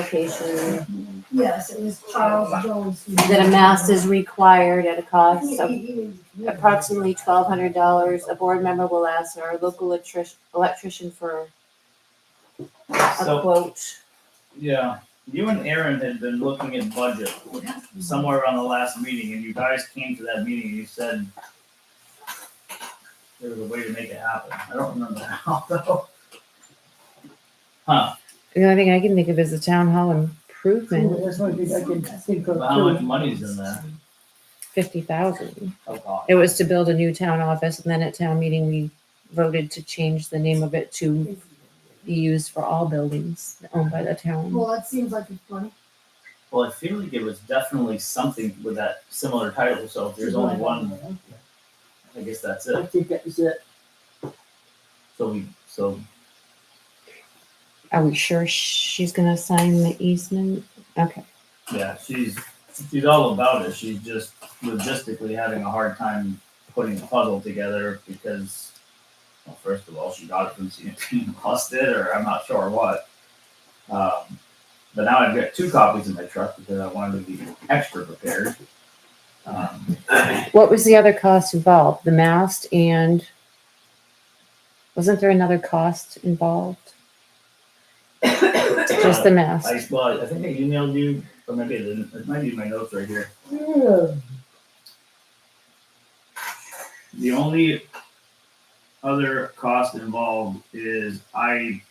relocation, Yes, it was Charles Jones. who- that a mass is required at a cost of He- he- approximately twelve hundred dollars. A board member will ask our local electric- electrician for a So, quote. yeah, you and Aaron had been looking at budget somewhere around the last meeting, and you guys came to that meeting and you said there was a way to make it happen. I don't remember how though. Huh, The only thing I can think of is the town hall improvement, That's one thing I can think of. but how much too. money's in there? fifty thousand. Oh, God. It was to build a new town office, and then at town meeting, we voted to change the name of it to be used for all buildings owned by the town. Well, it seems like it's funny. Well, I feel like it was definitely something with that similar title, so if there's only one, I guess that's I it. think that was it. So we, so Are we sure she's gonna sign the easement? Okay, Yeah, she's she's all about it. She's just logistically having a hard time putting the puzzle together because, well, first of all, she got it from CNT and lost it, or I'm not sure what. Um, but now I've got two copies in my truck because I wanted to be extra prepared. Um, what was the other cost involved? The mast and wasn't there another cost involved? Just the mast. I well, I think I emailed you, or maybe I didn't. It might be in my notes right here. Yeah. The only other cost involved is I,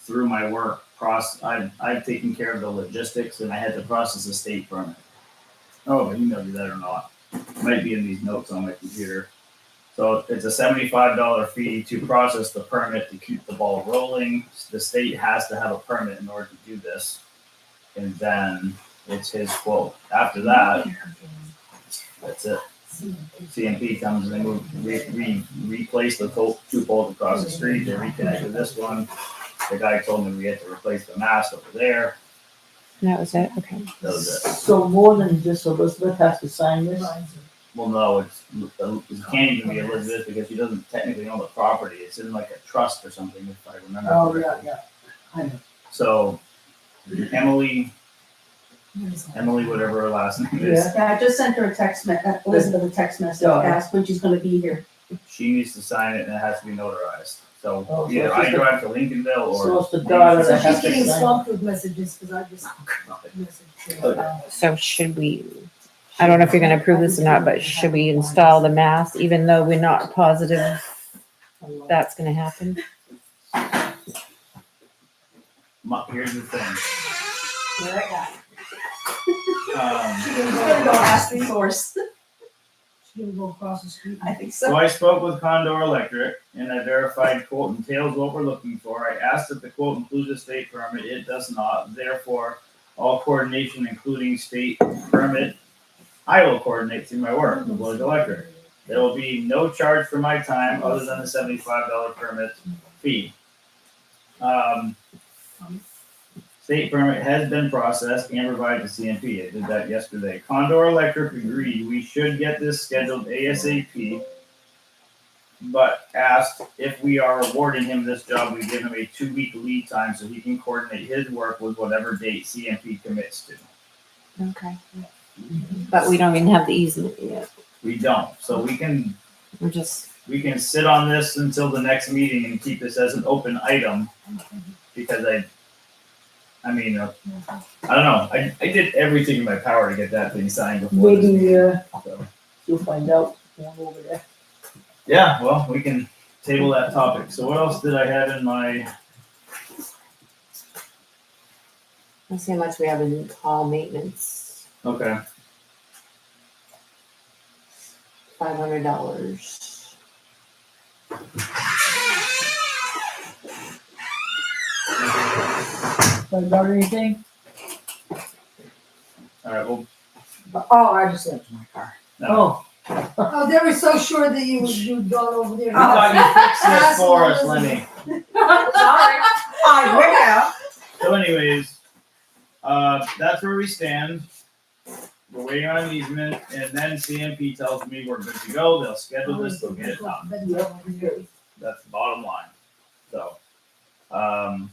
through my work, process, I've, I've taken care of the logistics and I had to process a state permit. Oh, but you know that or not. Might be in these notes on my computer. So it's a seventy-five dollar fee to process the permit to keep the ball rolling. The state has to have a permit in order to do this. And then it's his quote. After that, that's it. CMP comes and they move, re, re, replace the pole, two poles across the street, they reconnected this one. The guy told me we had to replace the mast over there, That was it, okay. that was it. So more than just Elizabeth has to sign this? Well, no, it's, it can't even be Elizabeth because she doesn't technically own the property, it's in like a trust or something, if I remember. Oh, yeah, correctly. yeah. I know. So Emily, Emily, whatever her last name is, Yeah. Yeah, I just sent her a text, me- uh, Elizabeth a text message, Got it. asked when she's gonna be here. she needs to sign it and it has to be notarized. So Oh, so either it's I just a- drive to Lincolnville or. So it's the daughter So that has she's to getting sign. swamped with messages because I just messaged Oh, her. Okay. So should we, I don't know if you're gonna approve this or not, but should we install the mast even though we're not positive that's gonna happen? My- Here's the thing, Where I got. um. She didn't She's gonna go go, last resource, she didn't go across the street. I think so. So I spoke with Condor Electric and I verified quote entails what we're looking for. I asked if the quote includes a state permit. It does not. Therefore, all coordination, including state permit, I will coordinate through my work, the village electric. There will be no charge for my time other than the seventy-five dollar permit fee. Um, state permit has been processed and provided to CMP. I did that yesterday. Condor Electric agreed we should get this scheduled ASAP. But asked if we are awarding him this job, we give him a two-week lead time so he can coordinate his work with whatever date CMP commits to. Okay. But we don't even have the easement yet. We don't, so we can We're just, we can sit on this until the next meeting and keep this as an open item. Because I, I mean, uh, I don't know, I, I did everything in my power to get that thing signed before. this Maybe, meeting, uh, so. you'll find out down over there. Yeah, well, we can table that topic. So what else did I have in my, Let's see how much we have in hall maintenance, okay, five hundred dollars. Find out anything? all right, well, Oh, I just left my car. no. Oh, Oh, they were so sure that you would, you'd gone over there. You thought you fixed this for us, Lenny. Sorry. I will. So anyways, uh, that's where we stand. We're waiting on an easement and then CMP tells me we're good to go. They'll schedule this, they'll get it done. That's the bottom line. So, um,